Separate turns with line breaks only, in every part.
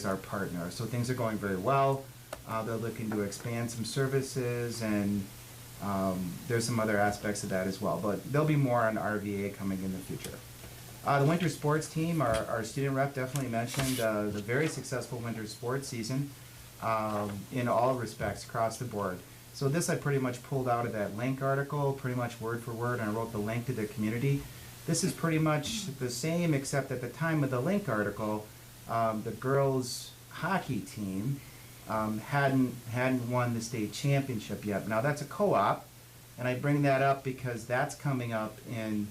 is our partner. So things are going very well. Uh, they're looking to expand some services, and um, there's some other aspects of that as well. But there'll be more on RVA coming in the future. Uh, the winter sports team, our, our student rep definitely mentioned uh, the very successful winter sports season um, in all respects across the board. So this I pretty much pulled out of that link article, pretty much word for word, and I wrote the link to the community. This is pretty much the same, except at the time of the link article, um, the girls hockey team um, hadn't hadn't won the state championship yet. Now that's a co-op, and I bring that up because that's coming up in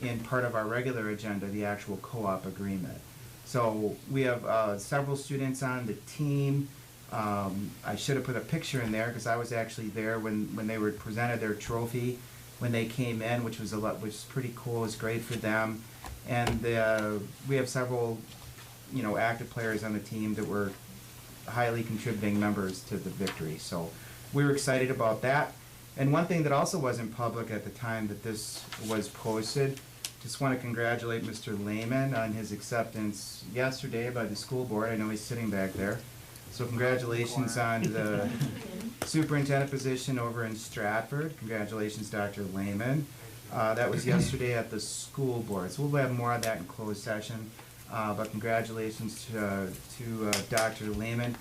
in part of our regular agenda, the actual co-op agreement. So we have uh, several students on the team. Um, I should have put a picture in there because I was actually there when, when they were presented their trophy when they came in, which was a lot, which is pretty cool. It was great for them, and uh, we have several, you know, active players on the team that were highly contributing members to the victory. So we were excited about that. And one thing that also wasn't public at the time that this was posted, just want to congratulate Mr. Lehman on his acceptance yesterday by the school board. I know he's sitting back there. So congratulations on the superintendent position over in Stratford. Congratulations, Dr. Lehman. Uh, that was yesterday at the school board. So we'll have more of that in closed session. Uh, but congratulations to, uh, to uh, Dr. Lehman.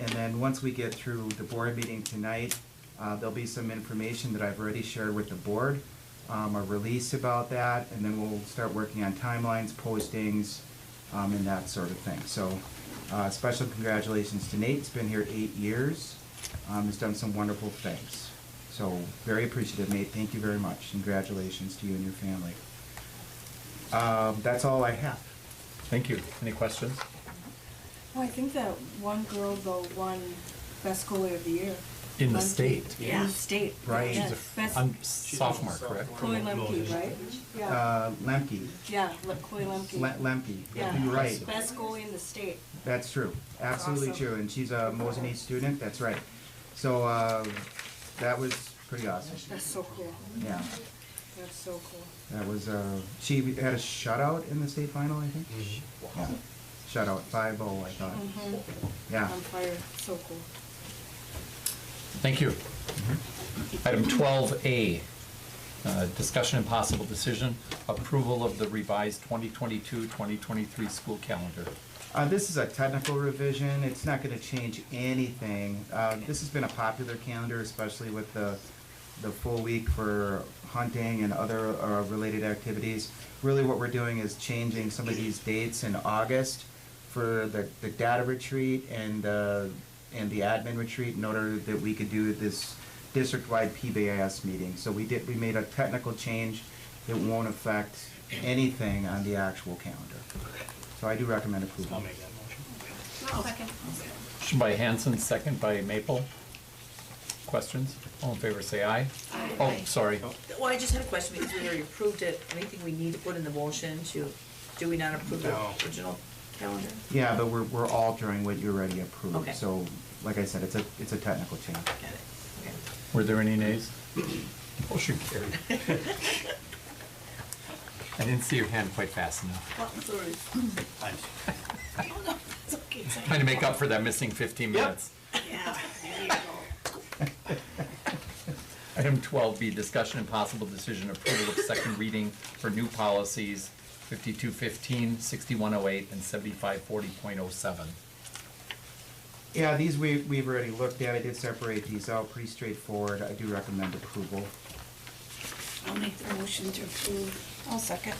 And then once we get through the board meeting tonight, uh, there'll be some information that I've already shared with the board, um, a release about that, and then we'll start working on timelines, postings, um, and that sort of thing. So, uh, special congratulations to Nate. He's been here eight years. Um, he's done some wonderful things. So, very appreciative, Nate. Thank you very much. Congratulations to you and your family. Um, that's all I have.
Thank you. Any questions?
Oh, I think that one girl though won best goalie of the year.
In the
Lemke.
state.
Yeah. In the state.
Right.
Yes. Best
I'm sophomore, correct?
Chloe Lemke, right? Yeah.
Uh, Lemke,
Yeah, Le- Chloe Lemke.
Le- Lemke.
Yeah.
You're right.
Best goalie in the state.
That's true. Absolutely
Awesome.
true. And she's a Mosin East student. That's right. So uh, that was pretty awesome.
That's so cool.
Yeah,
That's so cool.
that was. Uh, she had a shutout in the state final, I think. Yeah, shutout five zero. I thought.
Mhm.
Uh, Yeah.
On fire. So cool.
Thank you. Mm-hmm. Item twelve A, uh, discussion and possible decision, approval of the revised 2022-2023 school calendar.
Uh, this is a technical revision. It's not going to change anything. Uh, this has been a popular calendar, especially with the the full week for hunting and other uh, related activities. Really, what we're doing is changing some of these dates in August for the, the data retreat and uh, and the admin retreat in order that we could do this district-wide PBAS meeting. So we did we made a technical change that won't affect anything on the actual calendar. So I do recommend approval.
Motion by Hanson, second by Maple. Questions? All in favor, say aye. Oh, sorry.
Well, I just had a question because we already approved it. Anything we need to put in the motion to, do we not approve the
No.
original calendar?
Yeah, but we're, we're altering what you already approved.
Okay.
So, like I said, it's a, it's a technical change.
Got it. Okay.
Were there any nays? Oh, Motion carried. I didn't see your hand quite fast enough.
Well, it's all right. Oh, no, it's okay. It's all
Trying to make up for that missing fifteen minutes.
right. Yeah, there you go.
Item twelve B, discussion and possible decision approval of second reading for new policies 5215, 6108, and seventy-five forty point oh seven.
Yeah, these we, we've already looked at. I did separate these out, pretty straightforward. I do recommend approval.
I'll make the motion to approve. I'll second.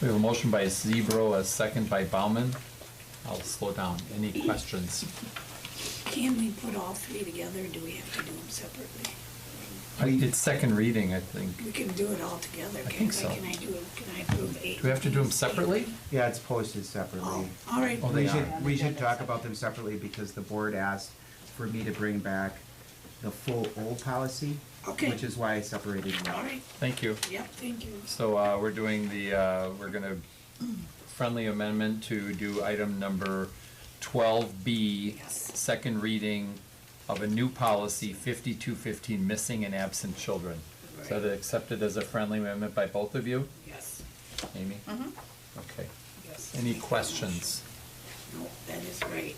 We have a motion by Zebro, a second by Bauman. I'll slow down. Any questions?
Can we put all three together, or do we have to do them separately?
I did second reading, I think.
We can do it all together,
I
can
think
I,
so.
can I do, can I approve eight?
Do we have to do them
things, eight?
separately?
Yeah, it's posted
Oh,
separately.
all right,
Oh,
We
they
should,
are.
we should talk about them separately because the board asked for me to bring back the full old policy.
Okay.
Which is why I separated them out.
all right,
Thank you.
yep, thank you.
So uh, we're doing the, uh, we're going to friendly amendment to do item number 12B,
Yes.
second reading of a new policy, 5215, missing and absent children. So
Right.
that accepted as a friendly amendment by both of you,
Yes, Mm-hmm.
Amy? Okay.
yes.
Any
Make the
questions?
No, that is right.